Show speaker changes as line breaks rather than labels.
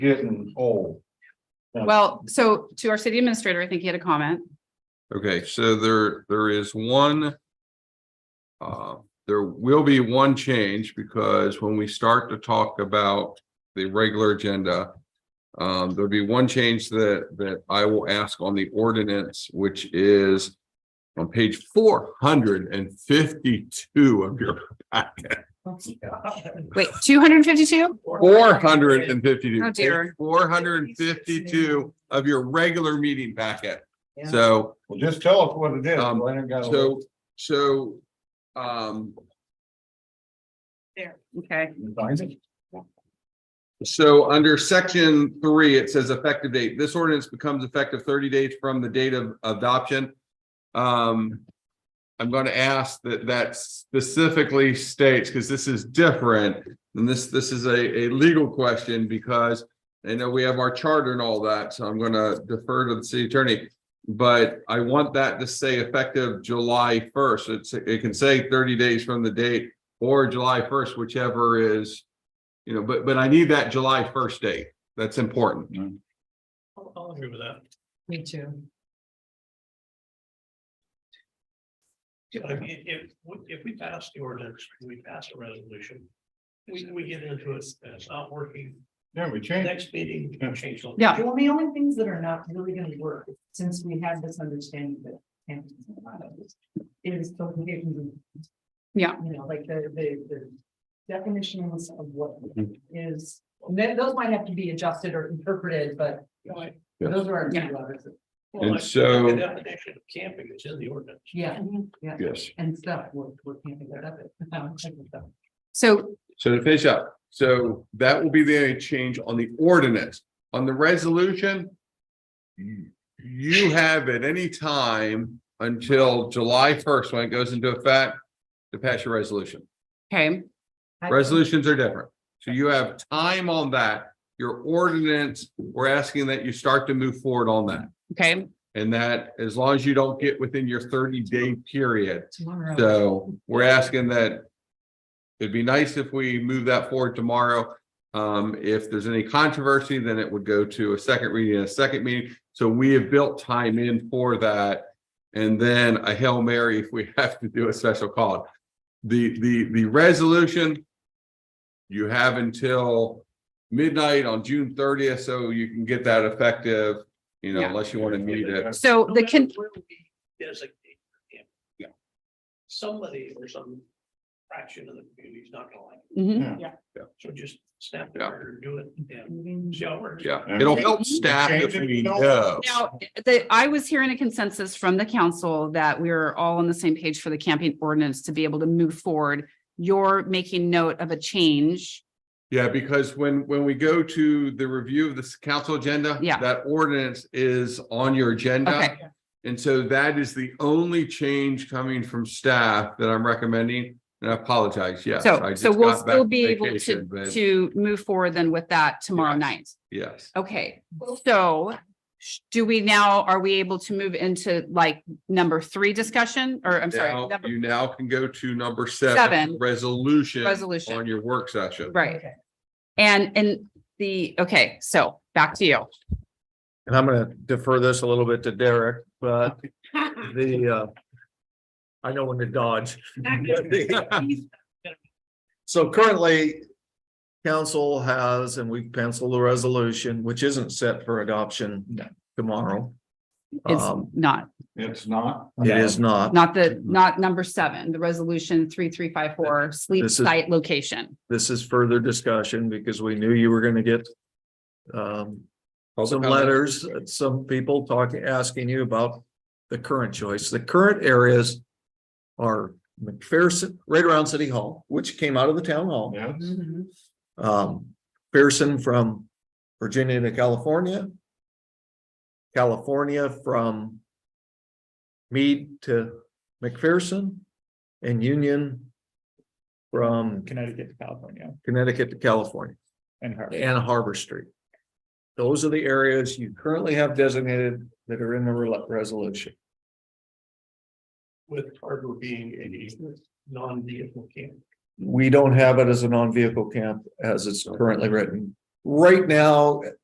getting old.
Well, so to our city administrator, I think he had a comment.
Okay, so there, there is one. Uh, there will be one change because when we start to talk about the regular agenda. Um, there'll be one change that, that I will ask on the ordinance, which is. On page four hundred and fifty-two of your,
Wait, two hundred and fifty-two?
four hundred and fifty-two.
Oh, dear.
Four hundred and fifty-two of your regular meeting packet. So
Well, just tell us what it is.
Um,
Leonard got a-
So, so, um,
Okay,
Find it.
so under section three, it says effective date. This ordinance becomes effective thirty days from the date of adoption. Um, I'm going to ask that that specifically states, because this is different, and this, this is a, a legal question because I know we have our charter and all that, so I'm going to defer to the city attorney. But I want that to say effective July first. It's, it can say thirty days from the date or July first, whichever is, you know, but, but I need that July first date. That's important.
I'll, I'll agree with that.
Me too.
I mean, if, we- if we pass the ordinance, we pass a resolution. We, we get into it, and it's not working.
Yeah, we changed.
Next meeting, we change. something.
yeah,
Well, the only things that are not really gonna work, since we have this understanding that. Hampton's a lot of this, Is the conditions. of-
Yeah.
You know, like the, the, the definitions of what is, and then those might have to be adjusted or interpreted, but
Right.
those are our
Yeah.
two others.
Well,
And
like,
so-
The definition of camping is in the ordinance.
Yeah, yeah,
Yes.
and stuff, we're, we're camping that up. at-
so,
So to finish up, so that will be the only change on the ordinance. On the resolution, you- you have at any time until July first, when it goes into effect, to pass your resolution.
okay,
Resolutions are different. So you have time on that. Your ordinance, we're asking that you start to move forward on that.
okay,
And that as long as you don't get within your thirty day period,
Tomorrow.
so we're asking that. It'd be nice if we move that forward tomorrow. Um, if there's any controversy, then it would go to a second reading, and a second meeting. So we have built time in for that. And then a Hail Mary if we have to do a special call. The, the, the resolution. You have until midnight on June thirtieth, so you can get that effective, you know,
Yeah.
unless you want to meet it.
so
No
the
matter
can,
where we Designate. camping,
Yeah.
Somebody or some fraction of the community is not gonna like it.
mhm,
So just snap the
Yeah.
trigger, do it and
Mm-hmm.
Moving-
see how it works.
Yeah, it'll help staff if we know.
now, the, I was hearing a consensus from the council that we we're all on the same page for the camping ordinance to be able to move forward. You're making note of a change,
Yeah, because when, when we go to the review of this council agenda.
Yeah.
That ordinance is on your agenda.
Okay.
And so that is the only change coming from staff that I'm recommending. And I apologize, yes. I
so, so
just
we'll
got back
still
from
be able
vacation,
to,
but
to move forward then with that tomorrow
Yes.
night.
Yes,
Okay, so sh- do we now, are we able to move into like number three discussion, or I'm sorry,
now
number-
you now can go to number
Seven.
seven, resolution.
Resolution.
On your work session.
right?
Okay.
And, and the, okay, so back to you.
And I'm gonna defer this a little bit to Derek, but the uh. I know when to dodge. So currently. Council has, and we penciled the resolution, which isn't set for adoption tomorrow.
It's
Um, uh,
not,
It's not.
it is not.
not the, not number seven, the resolution three, three, five, four, sleep
This is-
site location.
This is further discussion because we knew you were gonna get. Um, some
comment.
letters, some people talking, asking you about the current choice. The current areas are McPherson, right around City Hall, which came out of the town hall.
Yeah.
Mm-hmm.
Um, Pearson from Virginia to California. California from Mead to McPherson and Union from
Connecticut to California
Connecticut to California
and Harvard.
and Harbor Street. Those are the areas you currently have designated that are in the re- resolution.
With harbor being a non-vehicle camp.
We don't have it as a non-vehicle camp as it's currently written. right now,